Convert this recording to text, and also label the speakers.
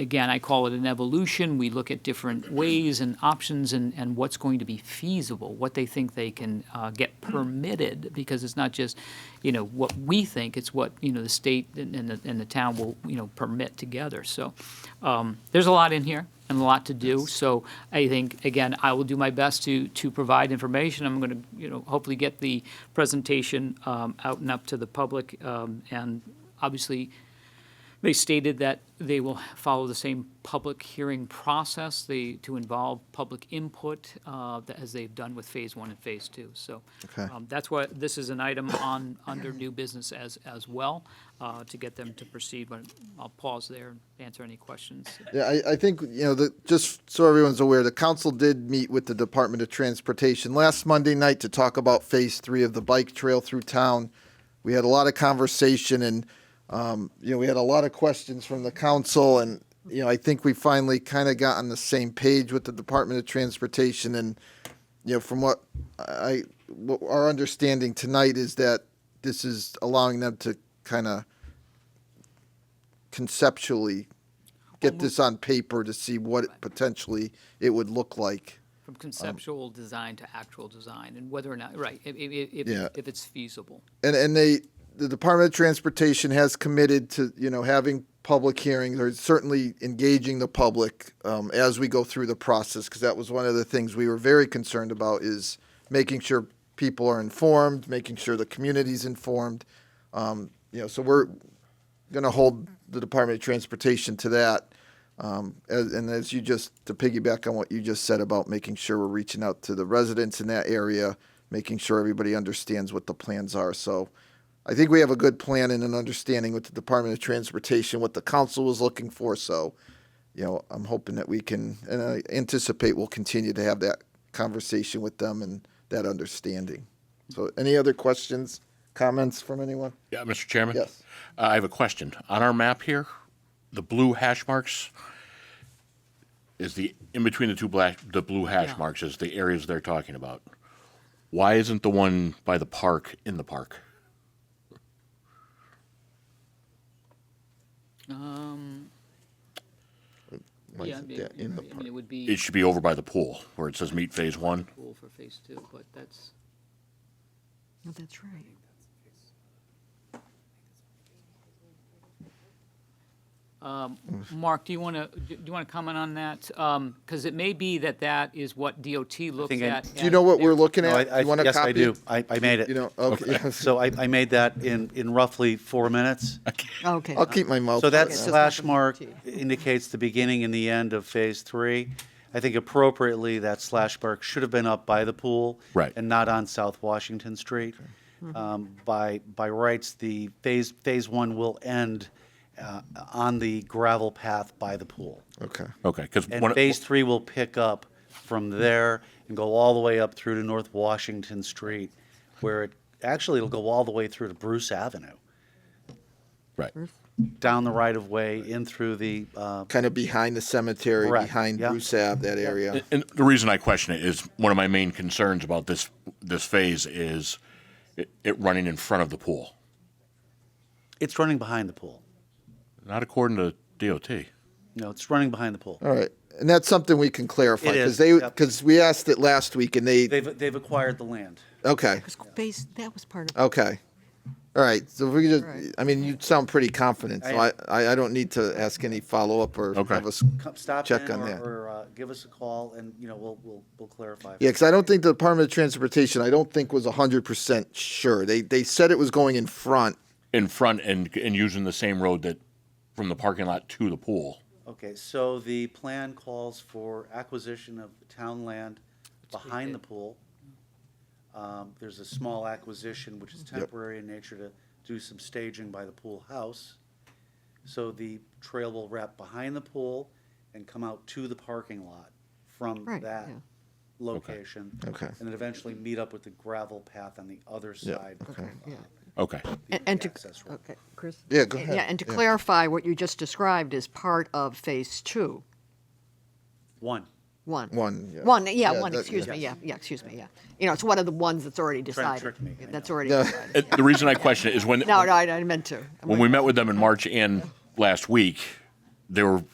Speaker 1: again, I call it an evolution. We look at different ways and options and, and what's going to be feasible, what they think they can uh, get permitted, because it's not just, you know, what we think, it's what, you know, the state and, and the, and the town will, you know, permit together. So um, there's a lot in here and a lot to do. So I think, again, I will do my best to, to provide information. I'm going to, you know, hopefully get the presentation um, out and up to the public. um, And obviously, they stated that they will follow the same public hearing process, they, to involve public input, uh, that- as they've done with Phase One and Phase Two. So
Speaker 2: Okay.
Speaker 1: um, that's why, this is an item on, under new business as, as well, uh, to get them to proceed. But I'll pause there and answer any questions.
Speaker 2: Yeah, I, I think, you know, the, just so everyone's aware, the council did meet with the Department of Transportation last Monday night to talk about phase three of the bike trail through town. We had a lot of conversation and, um, you know, we had a lot of questions from the council and, you know, I think we finally kind of got on the same page with the Department of Transportation and, you know, from what I, what our understanding tonight is that this is allowing them to kind of conceptually get this on paper to see what it potentially it would look like.
Speaker 1: From conceptual design to actual design, and whether or not, right, if, if,
Speaker 2: Yeah.
Speaker 1: if- if it's feasible.
Speaker 2: And and they the Department of Transportation has committed to you know having public hearings or certainly engaging the public um, as we go through the process because that was one of the things we were very concerned about is making sure people are informed, making sure the community's informed. Um, you know, so we're going to hold the Department of Transportation to that. Um, as, and as you just to piggyback on what you just said about making sure we're reaching out to the residents in that area, making sure everybody understands what the plans are. So, I think we have a good plan and an understanding with the Department of Transportation what the council was looking for. So, you know, I'm hoping that we can and I anticipate we'll continue to have that conversation with them and that understanding. So, any other questions, comments from anyone?
Speaker 3: Yeah, Mr. Chairman?
Speaker 2: Yes.
Speaker 3: Uh, I have a question. On our map here, the blue hash marks is the, in between the two black, the blue
Speaker 1: Yeah.
Speaker 3: hash marks is the areas they're talking about. Why isn't the one by the park in the park?
Speaker 2: Why
Speaker 1: Um, Yeah,
Speaker 2: is it
Speaker 1: I mean,
Speaker 2: that in the
Speaker 1: I mean,
Speaker 2: park?
Speaker 1: It would
Speaker 3: It
Speaker 1: be
Speaker 3: should be over by the pool where it says meet phase one.
Speaker 1: cool for Phase Two, but that's,
Speaker 4: Oh, that's right.
Speaker 1: Mark, do you want to, do you want to comment on that? Because it may be that that is what DOT looks
Speaker 5: think I-
Speaker 1: at.
Speaker 2: Do you know what we're looking
Speaker 5: No,
Speaker 2: at?
Speaker 5: I- I-
Speaker 2: you want a
Speaker 5: yes,
Speaker 2: copy?
Speaker 5: I do. I, I made it.
Speaker 2: You know, okay.
Speaker 5: So I, I made that in, in roughly four minutes.
Speaker 4: Oh, Okay.
Speaker 2: I'll keep my mouth.
Speaker 5: So that
Speaker 2: shut.
Speaker 4: Okay.
Speaker 5: slash mark indicates the beginning and the end of phase three. I think appropriately, that slash mark should have been up by the pool.
Speaker 3: Right.
Speaker 5: And not on South Washington Street. Um, By, by rights, the phase, phase one will end uh, on the gravel path by the pool.
Speaker 2: Okay.
Speaker 3: Okay, because
Speaker 5: And
Speaker 3: one,
Speaker 5: phase three will pick up from there and go all the way up through to North Washington Street, where it, actually, it'll go all the way through to Bruce Avenue,
Speaker 3: right.
Speaker 5: down the right of way, in through the, uh,
Speaker 2: Kind of behind the cemetery,
Speaker 5: Correct,
Speaker 2: behind
Speaker 5: yeah.
Speaker 2: Bruce Ave, that area.
Speaker 3: And the reason I question it is one of my main concerns about this, this phase is it, it running in front of the pool,
Speaker 5: it's running behind the pool.
Speaker 3: not according to DOT.
Speaker 5: No, it's running behind the pool.
Speaker 2: All right, and that's something we can clarify
Speaker 5: It
Speaker 2: because
Speaker 5: is,
Speaker 2: they
Speaker 5: yep.
Speaker 2: because we asked it last week and they,
Speaker 5: They've, they've acquired the land.
Speaker 2: okay
Speaker 4: Because base- that was part of,
Speaker 2: okay. All right, so if we could just,
Speaker 4: Right.
Speaker 2: I mean, you sound pretty confident, so I,
Speaker 5: I-
Speaker 2: I, I don't need to ask any follow up or
Speaker 3: Okay.
Speaker 2: have us.
Speaker 5: Come, stop
Speaker 2: Check
Speaker 5: in
Speaker 2: on
Speaker 5: or,
Speaker 2: that.
Speaker 5: or uh, give us a call and, you know, we'll, we'll, we'll clarify.
Speaker 2: Yeah, because I don't think the Department of Transportation, I don't think was hundred percent sure. They they said it was going in front.
Speaker 3: in front and and using the same road that from the parking lot to the pool.
Speaker 5: Okay, so the plan calls for acquisition of town land behind the pool. Um, There's a small acquisition, which is temporary in nature, to do some staging by the pool house. So the trail will wrap behind the pool and come out to the parking lot from
Speaker 4: Right,
Speaker 5: that
Speaker 4: yeah.
Speaker 5: location.
Speaker 2: Okay.
Speaker 5: And then eventually meet up with the gravel path on the other side.
Speaker 2: okay.
Speaker 4: yeah.
Speaker 3: Okay.
Speaker 5: the
Speaker 4: And- And to,
Speaker 5: access road.
Speaker 4: okay, Chris?
Speaker 2: Yeah, go ahead.
Speaker 4: Yeah, and to
Speaker 2: Yeah.
Speaker 4: clarify, what you just described is part of phase two,
Speaker 5: One,
Speaker 4: one.
Speaker 2: One, yeah.
Speaker 4: One, yeah,
Speaker 2: Yeah,
Speaker 4: one,
Speaker 2: that-
Speaker 4: excuse
Speaker 2: yeah.
Speaker 4: me, yeah, yeah, excuse me, yeah. You know, it's one of the ones that's already
Speaker 5: Trying
Speaker 4: decided.
Speaker 5: to trick me, I
Speaker 4: That's
Speaker 5: know.
Speaker 4: already
Speaker 2: Yeah.
Speaker 4: decided.
Speaker 3: Uh, The reason I question it is when
Speaker 4: No, no, I I meant to. I'm
Speaker 3: when
Speaker 4: like-
Speaker 3: we met with them in March and last week, they were